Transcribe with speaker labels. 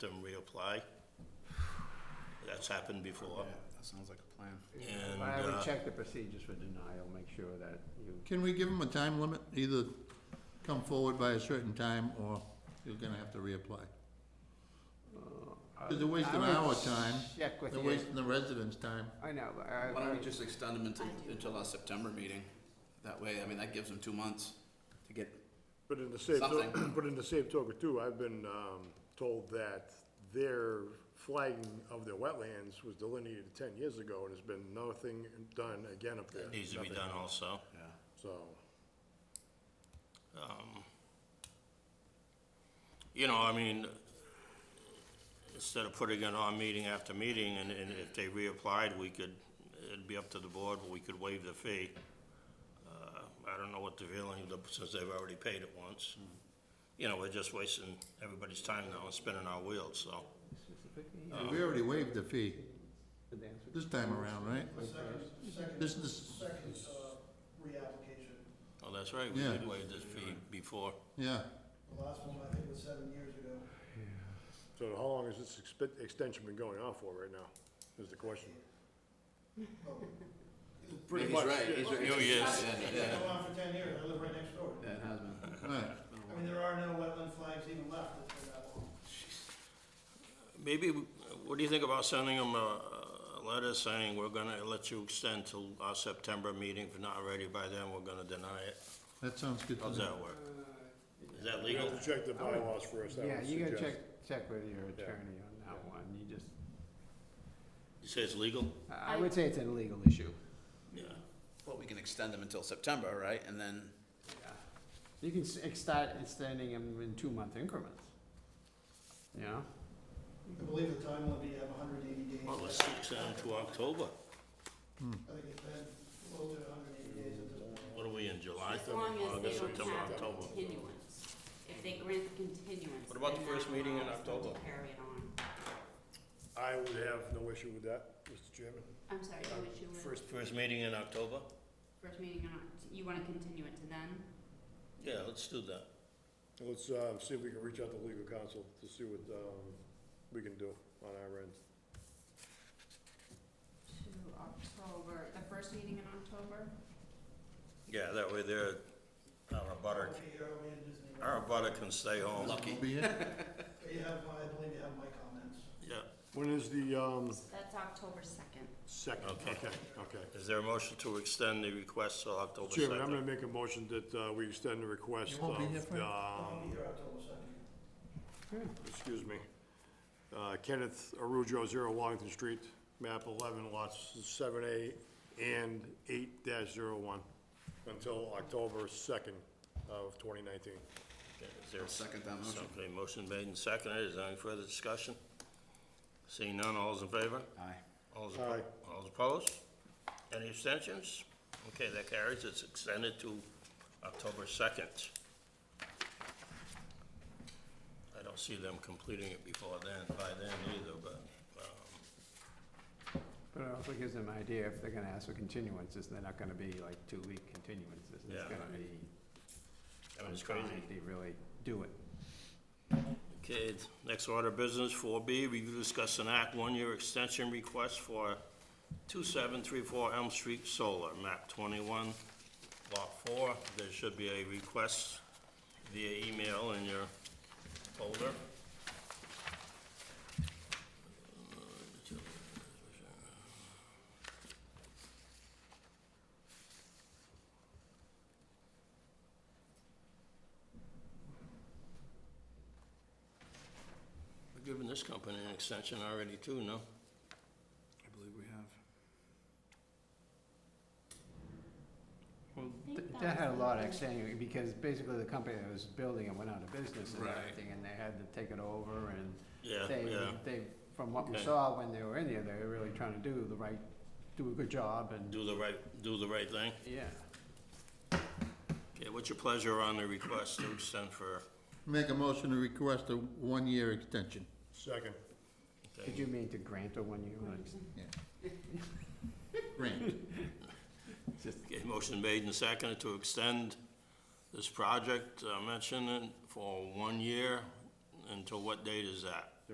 Speaker 1: them reapply. That's happened before.
Speaker 2: That sounds like a plan.
Speaker 1: And,
Speaker 3: I would
Speaker 1: uh,
Speaker 3: check the procedures for denial, make sure that you,
Speaker 4: Can we give them a time limit? Either come forward by a certain time, or you're gonna have to reapply. Because they're wasting
Speaker 3: I
Speaker 4: our
Speaker 3: would
Speaker 4: time,
Speaker 3: check with
Speaker 4: they're
Speaker 3: you.
Speaker 4: wasting the residents' time.
Speaker 3: I know, but I,
Speaker 2: Why don't
Speaker 3: I,
Speaker 2: we just extend them until, until our September meeting? That way, I mean, that gives them two months to get,
Speaker 5: But in the same, to-
Speaker 2: Something.
Speaker 5: but in the same token too, I've been, um, told that their flagging of their wetlands was delineated ten years ago and has been nothing done again up there.
Speaker 1: that uh, needs to be
Speaker 5: Nothing.
Speaker 1: done also.
Speaker 2: yeah.
Speaker 5: So,
Speaker 1: Um, You know, I mean, instead of putting it on meeting after meeting, and, and if they reapplied, we could, it'd be up to the board, but we could waive the fee. Uh, I don't know what the feeling, the- since they've already paid it once. You know, we're just wasting everybody's time now and spinning our wheels, so.
Speaker 4: We already waived the fee
Speaker 3: the dance with-
Speaker 4: this time around, right?
Speaker 6: Second,
Speaker 4: This is,
Speaker 6: second, uh, reapplication.
Speaker 1: Well, that's right, we
Speaker 4: Yeah.
Speaker 1: did waive this fee before.
Speaker 4: yeah,
Speaker 6: The last one, I think, was seven years ago.
Speaker 5: so how long has this expe- extension been going on for right now, is the question?
Speaker 2: Pretty
Speaker 5: much,
Speaker 2: He's right, he's right.
Speaker 1: Oh, yes.
Speaker 2: Yeah,
Speaker 6: It's
Speaker 2: yeah,
Speaker 6: been going on for ten years, I live right next door.
Speaker 2: yeah, it has been.
Speaker 4: right.
Speaker 6: I mean, there are no wetland flags even left that's been that long.
Speaker 1: Maybe, w- what do you think about sending them a a letter saying, we're gonna let you extend till our September meeting, if not ready by then, we're gonna deny it?
Speaker 4: That sounds good to
Speaker 1: How's
Speaker 4: me.
Speaker 1: that work? Is that
Speaker 5: We
Speaker 1: legal?
Speaker 5: have to check the bylaws first, I
Speaker 3: Yeah,
Speaker 5: would
Speaker 3: you gotta
Speaker 5: suggest.
Speaker 3: check, check with your attorney on that one, you just,
Speaker 1: You say it's legal?
Speaker 3: I I would say it's an illegal issue.
Speaker 1: Yeah.
Speaker 2: Well, we can extend them until September, right? And then,
Speaker 3: You can s- ex- start extending them in two-month increments. You know?
Speaker 6: I believe the time limit, you have hundred and eighty days.
Speaker 1: Well, let's extend to October.
Speaker 6: I think it's been close to hundred and eighty days at this point.
Speaker 1: What are we in, July?
Speaker 7: As long as they
Speaker 1: August,
Speaker 7: don't
Speaker 1: September,
Speaker 7: have a
Speaker 1: October.
Speaker 7: continuance. If they grant the continuance.
Speaker 1: What about the
Speaker 7: then
Speaker 1: first
Speaker 7: that
Speaker 1: meeting in
Speaker 7: allows them to
Speaker 1: October?
Speaker 7: Carry it on.
Speaker 5: I would have no issue with that, Mr. Chairman.
Speaker 7: I'm sorry, you wish you were,
Speaker 1: Uh, First, first meeting in October?
Speaker 7: first meeting in Oct- you wanna continue it to then?
Speaker 1: Yeah, let's do that.
Speaker 5: Let's, uh, see if we can reach out to legal counsel to see what, um, we can do on our end.
Speaker 7: To October, the first meeting in October?
Speaker 1: Yeah, that way they're, our butter, Oh.
Speaker 6: I'll be here, I'll be in Disney.
Speaker 1: our butter can stay home.
Speaker 2: lucky.
Speaker 4: Be it?
Speaker 6: You have, my- I believe you have my comments.
Speaker 1: Yeah.
Speaker 5: When is the, um,
Speaker 7: That's October second.
Speaker 5: second?
Speaker 1: Okay.
Speaker 5: Okay, okay.
Speaker 1: Is there a motion to extend the request till October second?
Speaker 5: Chairman, I'm gonna make a motion that, uh, we extend the request
Speaker 4: You
Speaker 5: of,
Speaker 4: won't be here for it?
Speaker 6: I'll
Speaker 5: um,
Speaker 6: be here October second.
Speaker 5: excuse me, uh, Kenneth Arujo, zero Wellington Street, map eleven, lots seven A and eight dash zero one, until October second of twenty nineteen.
Speaker 1: Is there a
Speaker 2: second that motion.
Speaker 1: Okay, motion made and seconded. Is there any further discussion? Seeing none, all's in favor?
Speaker 2: Aye.
Speaker 1: All's
Speaker 5: Aye.
Speaker 1: opposed? All's opposed? Any abstentions? Okay, that carries. It's extended to October second. I don't see them completing it before then, by then either, but, um,
Speaker 3: But it also gives them an idea if they're gonna ask for continuances, they're not gonna be like two-week continuances,
Speaker 1: Yeah.
Speaker 3: it's gonna be.
Speaker 1: I mean, it's
Speaker 3: some time
Speaker 1: crazy.
Speaker 3: if They really do it.
Speaker 1: Okay, next order of business, four B, review, discuss an act, one-year extension request for two-seven-three-four Elm Street Solar, map twenty-one, lot four. There should be a request via email in your folder. We're giving this company an extension already too, no?
Speaker 2: I believe we have.
Speaker 7: think
Speaker 3: Th-
Speaker 7: that
Speaker 3: That had a
Speaker 7: was
Speaker 3: lot of
Speaker 7: something-
Speaker 3: extenuating, because basically the company that was building it went out of business and
Speaker 2: Right.
Speaker 3: everything, and they had to take it over, and
Speaker 1: Yeah,
Speaker 3: they,
Speaker 1: yeah.
Speaker 3: they, from what we
Speaker 1: Okay.
Speaker 3: saw when they were in there, they were really trying to do the right, do a good job, and,
Speaker 1: Do the right, do the right thing.
Speaker 3: yeah.
Speaker 1: Okay, what's your pleasure on the request to extend for,
Speaker 4: Make a motion to request a one-year extension.
Speaker 5: Second.
Speaker 3: Did you mean to grant a one-year lease?
Speaker 4: Grant,
Speaker 1: okay, motion made and seconded to extend this project uh, mentioned in- for one year. Until what date is that?